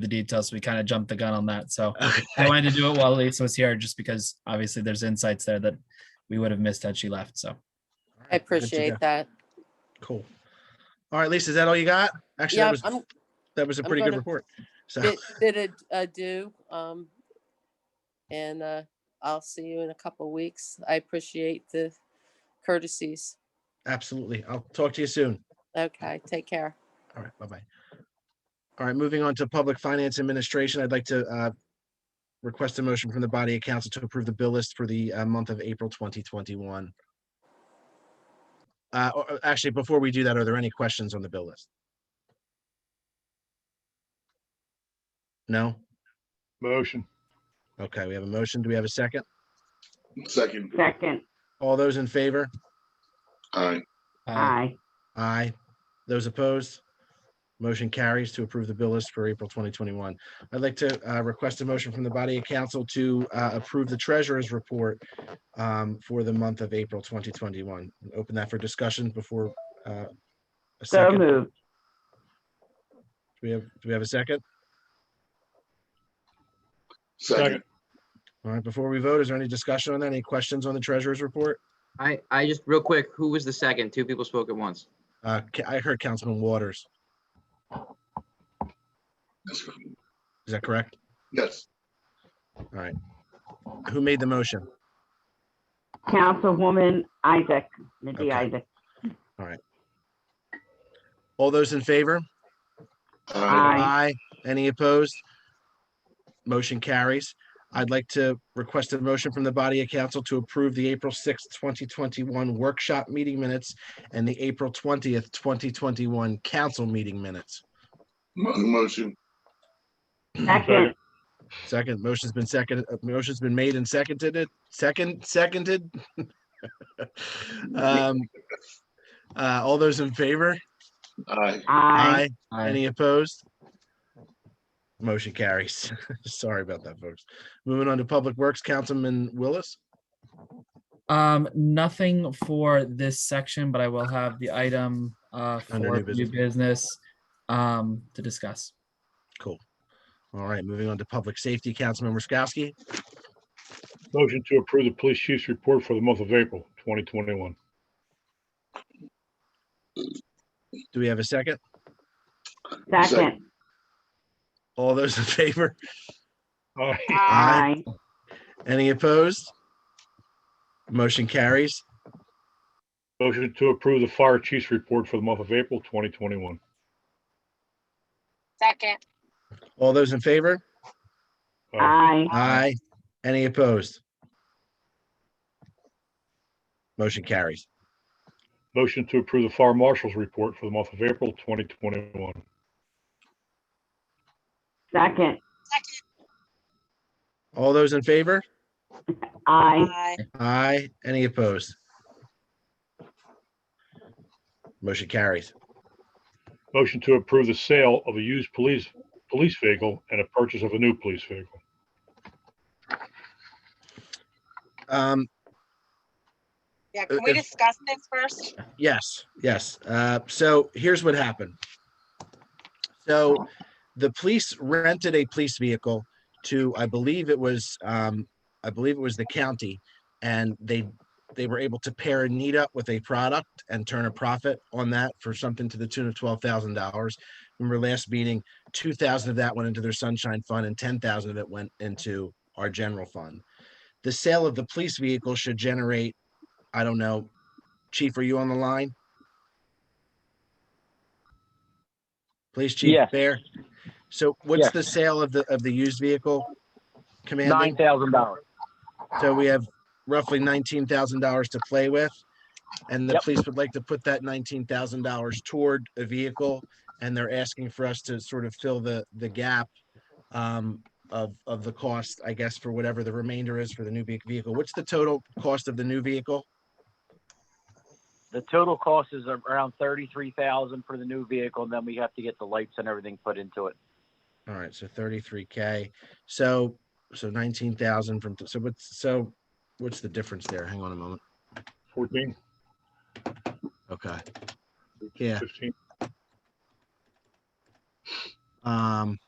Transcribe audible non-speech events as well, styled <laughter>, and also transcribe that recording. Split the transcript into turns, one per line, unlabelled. the details. So we kind of jumped the gun on that. So I wanted to do it while Lisa was here, just because obviously there's insights there that we would have missed had she left. So
Good
I
to
appreciate
go.
that.
Cool. All right, Lisa, is that all you got? Actually,
Yeah,
that was, <laughs>
I'm
that was a
I'm
pretty good
gonna-
report. So,
bit, bit of do, um, and, uh, I'll see you in a couple weeks. I appreciate the courtesies.
absolutely. I'll talk to you soon.
Okay, take care.
All right, bye-bye. All right, moving on to Public Finance Administration, I'd like to uh, request a motion from the body of council to approve the bill list for the uh, month of April 2021. Uh, or- or Actually, before we do that, are there any questions on the bill list? No?
Motion.
Okay, we have a motion. Do we have a second?
Second.
Second,
All those in favor?
Aye.
uh,
aye.
Aye. Those opposed? Motion carries to approve the bill list for April 2021. I'd like to uh, request a motion from the body of council to uh, approve the treasurer's report um, for the month of April 2021. Open that for discussion before uh, a
So
second. Do
moved.
we have, do we have a second?
Second.
All right, before we vote, is there any discussion on that? Any questions on the treasurer's report?
I, I just, real quick, who was the second? Two people spoke at once.
Uh, Ca- I heard Councilman Waters. Is that correct?
Yes.
Who made the motion?
Councilwoman Isaac, Mindy
Okay.
Isaac,
All those in favor?
Aye.
Any opposed? Motion carries. I'd like to request a motion from the body of council to approve the April sixth, twenty twenty-one workshop meeting minutes and the April twentieth, twenty twenty-one council meeting minutes.
Motion.
second,
Second, motion's been seconded, uh, motion's been made and seconded it, second, seconded. <laughs> Um, uh, all those in favor?
Aye.
aye.
I-
Any opposed? Motion carries. <laughs> Sorry about that, folks. Moving on to Public Works, Councilman Willis.
Um, nothing for this section, but I will have the item, uh,
Under
for
new
new
business.
business, um, to discuss.
All right, moving on to Public Safety, Councilman Roskowski.
Motion to approve the police chief's report for the month of April 2021.
Do we have a second?
Second,
All those in <laughs> favor?
Aye.
aye.
Aye. Any opposed? Motion carries.
<laughs> Motion to approve the fire chief's report for the month of April 2021.
Second,
All those in favor?
Aye.
Aye.
Aye. Any opposed? Motion carries.
Motion to approve the fire marshal's report for the month of April 2021.
Second,
second,
All those in favor?
aye.
aye,
Aye. Any opposed? Motion carries.
Motion to approve the sale of a used police, police vehicle and a purchase of a new police vehicle.
Um,
yeah, can we
If-
discuss this first?
yes, yes. Uh, so here's what happened. So the police rented a police vehicle to, I believe it was, um, I believe it was the county. And they, they were able to pair a need up with a product and turn a profit on that for something to the tune of twelve thousand dollars. Remember last meeting, two thousand of that went into their sunshine fund and ten thousand of it went into our general fund. The sale of the police vehicle should generate, I don't know, Chief, are you on the line? Police Chief
Yes.
Bear? So what's
Yes.
the sale of the, of the used vehicle?
Nine
Commanding,
thousand dollars.
so we have roughly nineteen thousand dollars to play with. And the
Yep.
police would like to put that nineteen thousand dollars toward a vehicle. And they're asking for us to sort of fill the, the gap um, of, of the cost, I guess, for whatever the remainder is for the new ve- vehicle. What's the total cost of the new vehicle?
The total cost is around thirty-three thousand for the new vehicle, and then we have to get the lights and everything put into it.
All right, so thirty-three K, so, so nineteen thousand from, so what's, so what's the difference there? Hang on a moment.
14,
Okay. Yeah,
15.
um,